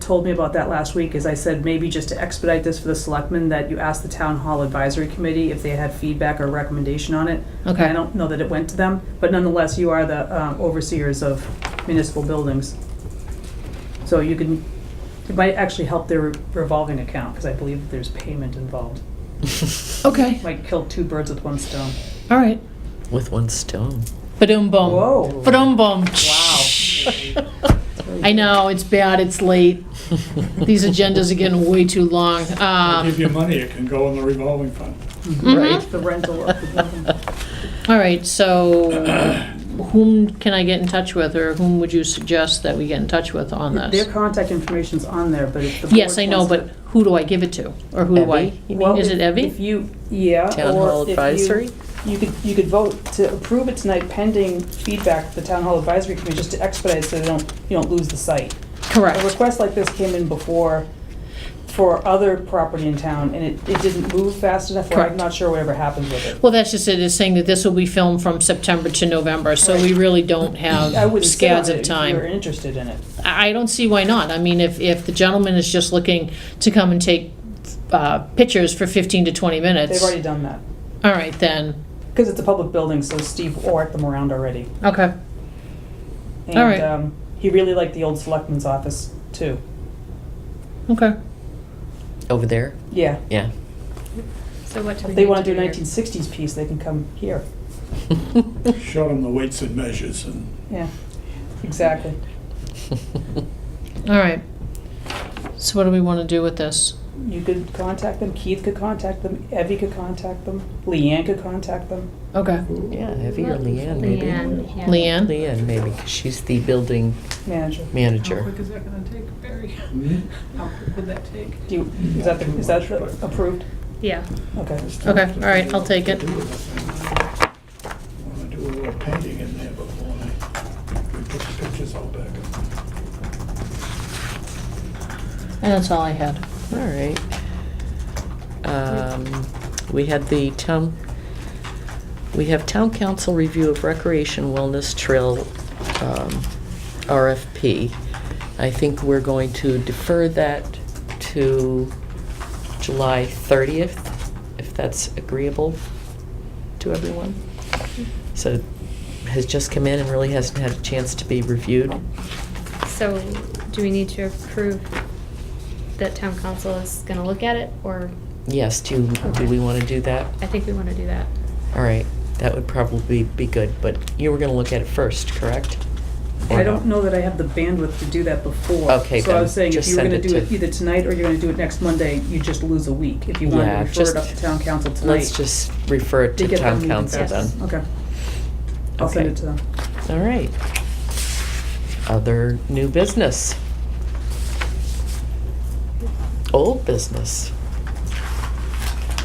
told me about that last week, is I said, maybe just to expedite this for the selectmen, that you ask the town hall advisory committee if they had feedback or recommendation on it. Okay. I don't know that it went to them, but nonetheless, you are the um, overseers of municipal buildings. So you can, it might actually help their revolving account, because I believe that there's payment involved. Okay, Might kill two birds with one stone. all right. With one stone. Ba-dum bum. Whoa. Ba-dum bum. Wow. I know, it's bad, it's late. These agendas are getting way too long. Um, Give you money, it can go in the revolving fund. mhm. The rental of the building. All right, so whom can I get in touch with, or whom would you suggest that we get in touch with on Their this? contact information's on there, but if the board Yes, I know, wants to- but who do I give it to? Or who do I? Evie? you Well, mean, Is if- it Evie? If you, yeah. Uh, Town or Hall if you- Advisory? You could, you could vote to approve it tonight pending feedback to the Town Hall Advisory Committee, just to expedite so they don't, you don't lose the site. A Correct. request like this came in before for other property in town, and it, it didn't move fast enough, or I'm Correct. not sure whatever happens with it. Well, that's just it, it's saying that this will be filmed from September to November, so we really don't I have wouldn't sit on scads it of if time. you're interested in it. I I don't see why not. I mean, if, if the gentleman is just looking to come and take uh, pictures for 15 to 20 They've minutes, all already done that, right, then, because it's a public building, so Steve orked them around already. okay. And, All right. um, He really liked the old selectman's office, too. Okay. Over there? Yeah, Yeah. So what if do we need to do? they want to do a here? 1960s piece, they can come here. Show them the weights and measures and Yeah, exactly. All right. So what do we want to do with this? You could contact them, Keith could contact them, Evie could contact them, Leanne could contact them. Okay. Yeah, Evie or Leanne, maybe? Leanne, yeah. Leanne? Leanne, maybe, 'cause she's the building Manager, How Oh, manager. quick is that gonna take, Barry? Mm-hmm. How quick would that take? do you, is that, the- is that the- approved? Yeah, Okay. Okay, all right, I'll take it. Want to do a little painting in there before I, we put the pictures all back up. And that's all I had. All right. Um, We had the town, we have town council review of recreation wellness trail um, RFP. I think we're going to defer that to July 30th, if that's agreeable to everyone. So has just come in and really hasn't had a chance to be reviewed. so do we need to approve that town council is gonna look at it, or, Yes, do, do we want to do that? I think we wanna do that. All right, that would probably be good, but you were gonna look at it first, correct? I don't know that I have the bandwidth to do that before. Okay, So I then was saying, if just you were send gonna it do it to- either tonight or you're gonna do it next Monday, you just lose a week. If you want to Yeah, refer it just- up to town council tonight. Let's just refer it they to get their town meeting council Yes. then. first. Okay. I'll send Okay. it to them. All right. Other new business? Old business?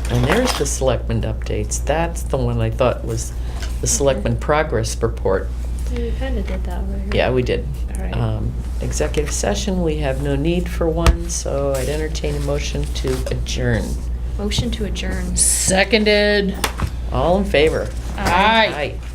And there's the selectmen updates. That's the one I thought was the selectmen Mm-hmm. progress report. We kinda did that over here. Yeah, we did. All right. Um, Executive session, we have no need for one, so I'd entertain a motion to adjourn. Motion to adjourn. Seconded. All in favor? Aye. Aye.